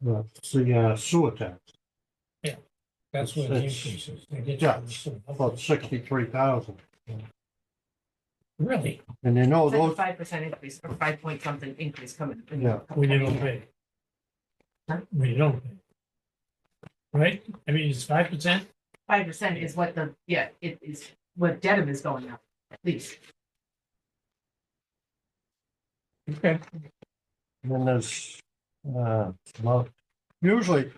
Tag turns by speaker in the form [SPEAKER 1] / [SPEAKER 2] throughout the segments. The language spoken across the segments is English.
[SPEAKER 1] the, the uh, sewer tax,
[SPEAKER 2] That's where the
[SPEAKER 1] It's-
[SPEAKER 2] increase is. They get
[SPEAKER 1] yeah,
[SPEAKER 2] you some-
[SPEAKER 1] about sixty-three thousand.
[SPEAKER 2] Really?
[SPEAKER 1] And you know, those,
[SPEAKER 3] Five percent increase or five point something increase coming. in.
[SPEAKER 1] Yeah.
[SPEAKER 2] We don't pay.
[SPEAKER 3] Huh?
[SPEAKER 2] We don't pay. Right? I mean, it's five percent.
[SPEAKER 3] Five percent is what the, yeah, it is what Dedham is going up, at least.
[SPEAKER 2] Okay.
[SPEAKER 1] then there's, uh, well, usually,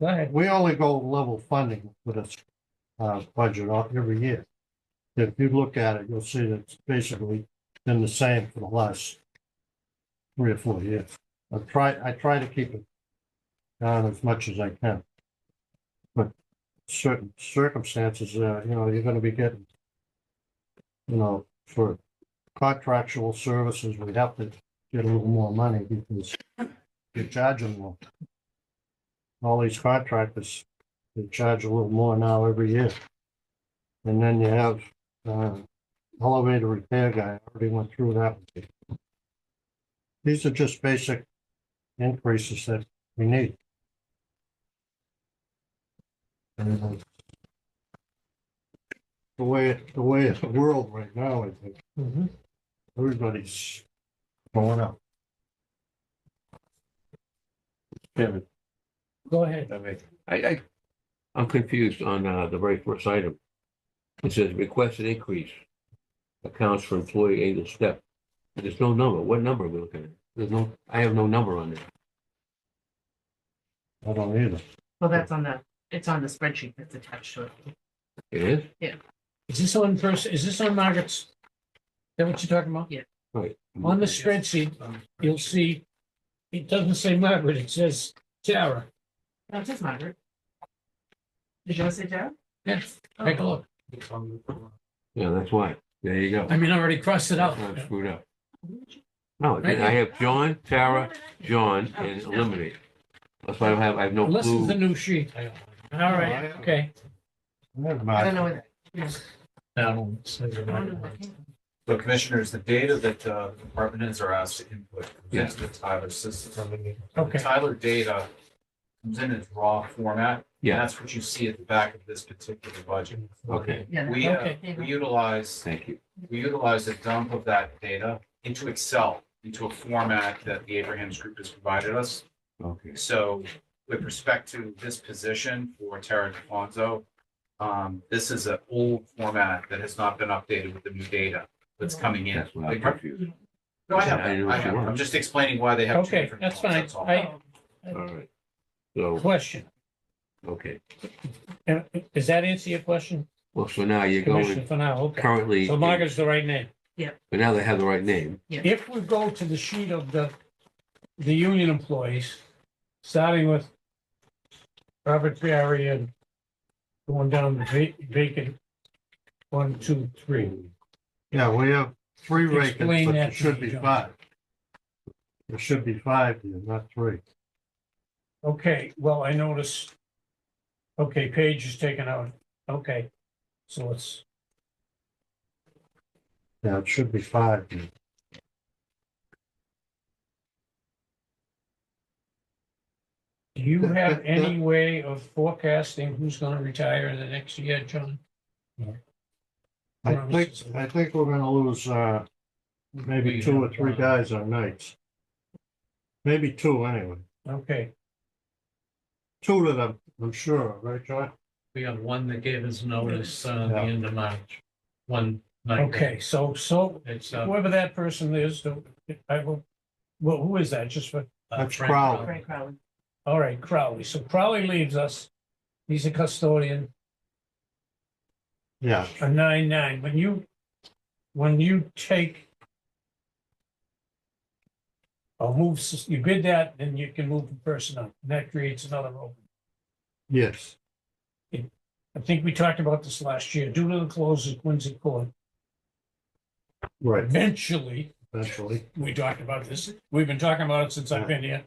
[SPEAKER 2] Go ahead.
[SPEAKER 1] we only go level funding with this, uh, budget on- every year. If you look at it, you'll see that it's basically been the same for the last three or four years. I try, I try to keep it down as much as I can. But certain circumstances, uh, you know, you're gonna be getting, you know, for contractual services, we have to get a little more money because you're charging more. All these contractors, they charge a little more now every year. And then you have, uh, elevator repair guy, I already went through that. with you. These are just basic increases that we need. And, uh, The way, the way it's the world right now, I think
[SPEAKER 2] Mhm.
[SPEAKER 1] everybody's going up.
[SPEAKER 4] Chairman,
[SPEAKER 2] Go ahead.
[SPEAKER 4] I mean, I, I, I'm confused on, uh, the very first item. It says requested increase accounts for employee annual step. There's no number. What number are we looking at? There's no, I have no number on there.
[SPEAKER 1] I don't either.
[SPEAKER 3] Well, that's on the, it's on the spreadsheet that's attached to it.
[SPEAKER 4] It is?
[SPEAKER 2] Is this on person, is this on Margaret's? Is that what you're talking about? On the spreadsheet, you'll see, it doesn't say Margaret, it says Tara.
[SPEAKER 3] No, it says Margaret. Did you want to say Dedham?
[SPEAKER 2] Yes,
[SPEAKER 3] Oh.
[SPEAKER 2] take a look.
[SPEAKER 4] Yeah, that's why. There you go.
[SPEAKER 2] I mean, I already crossed it out.
[SPEAKER 4] That's why I'm screwed up. No, I didn't. I have John, Tara, John, and eliminate. That's why I don't have, I have no
[SPEAKER 2] Unless it's the
[SPEAKER 4] clue.
[SPEAKER 2] new sheet. All right, okay.
[SPEAKER 1] Never
[SPEAKER 3] I don't
[SPEAKER 1] mind.
[SPEAKER 3] know where that. I don't know
[SPEAKER 2] That'll-
[SPEAKER 3] where that came from.
[SPEAKER 5] So commissioners, the data that uh, department heads are asked to input
[SPEAKER 4] Yeah.
[SPEAKER 5] comes into the Tyler system. The
[SPEAKER 2] Okay,
[SPEAKER 5] Tyler data comes in its raw format. and
[SPEAKER 4] Yeah,
[SPEAKER 5] That's what you see at the back of this particular budget.
[SPEAKER 4] okay,
[SPEAKER 3] Yeah, that-
[SPEAKER 5] We, uh,
[SPEAKER 2] Okay.
[SPEAKER 5] we utilize,
[SPEAKER 4] thank you.
[SPEAKER 5] we utilize a dump of that data into Excel, into a format that the Abraham's Group has provided us.
[SPEAKER 4] Okay.
[SPEAKER 5] So with respect to this position for Tara DeFonso, um, this is an old format that has not been updated with the new data that's coming in.
[SPEAKER 4] That's why I'm
[SPEAKER 5] The-
[SPEAKER 4] confused.
[SPEAKER 5] No, I have,
[SPEAKER 4] I didn't know
[SPEAKER 5] I have.
[SPEAKER 4] what you were.
[SPEAKER 5] I'm just explaining why they have. two
[SPEAKER 2] okay,
[SPEAKER 5] different
[SPEAKER 2] that's
[SPEAKER 5] ones,
[SPEAKER 2] fine.
[SPEAKER 5] all.
[SPEAKER 2] I,
[SPEAKER 4] All right. So,
[SPEAKER 2] question.
[SPEAKER 4] okay.
[SPEAKER 2] Uh, Does that answer your question,
[SPEAKER 4] Well, so now you're
[SPEAKER 2] Commissioner,
[SPEAKER 4] going
[SPEAKER 2] for now? Okay.
[SPEAKER 4] currently.
[SPEAKER 2] So Margaret's the right name.
[SPEAKER 4] But now they have the right name.
[SPEAKER 2] If we go to the sheet of the, the union employees, starting with Robert Barry and going down the va- vacant, one, two, three.
[SPEAKER 1] Yeah, we have three vacants, but
[SPEAKER 2] Explain that
[SPEAKER 1] there
[SPEAKER 2] to
[SPEAKER 1] should
[SPEAKER 2] me,
[SPEAKER 1] be
[SPEAKER 2] John.
[SPEAKER 1] five. There should be five here, not three.
[SPEAKER 2] Okay, well, I notice. Okay, page is taken out. Okay, so it's,
[SPEAKER 1] Yeah, it should be five. here.
[SPEAKER 2] do you have any way of forecasting who's gonna retire in the next year, John?
[SPEAKER 1] I
[SPEAKER 2] Well,
[SPEAKER 1] think,
[SPEAKER 2] it's-
[SPEAKER 1] I think we're gonna lose, uh, maybe two or three guys on nights. Maybe two anyway.
[SPEAKER 2] Okay,
[SPEAKER 1] Two of them, I'm sure, right, John?
[SPEAKER 6] We got one that gave us
[SPEAKER 3] Oh,
[SPEAKER 6] notice, uh, the
[SPEAKER 1] Yeah.
[SPEAKER 6] end of March, one night.
[SPEAKER 2] okay, so, so
[SPEAKER 6] It's, uh,
[SPEAKER 2] whoever that person is, the- I will, well, who is that? Just for,
[SPEAKER 1] That's
[SPEAKER 6] Frank
[SPEAKER 1] Crowley.
[SPEAKER 3] Frank Crowley.
[SPEAKER 2] all right, Crowley. So Crowley leaves us. He's a custodian,
[SPEAKER 1] Yeah,
[SPEAKER 2] a nine-nine. When you, when you take or move, s- you bid that, then you can move the person up. And that creates another opening.
[SPEAKER 1] yes,
[SPEAKER 2] I think we talked about this last year, due to the close of Quincy Court,
[SPEAKER 1] right,
[SPEAKER 2] eventually,
[SPEAKER 1] eventually.
[SPEAKER 2] we talked about this, we've been talking about it since I've been here.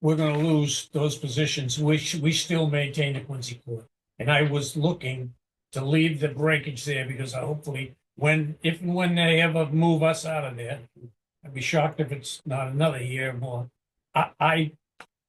[SPEAKER 2] We're gonna lose those positions, which we still maintain at Quincy Court. And I was looking to leave the breakage there because I hopefully, when, if and when they ever move us out of there, I'd be shocked if it's not another year more. I, I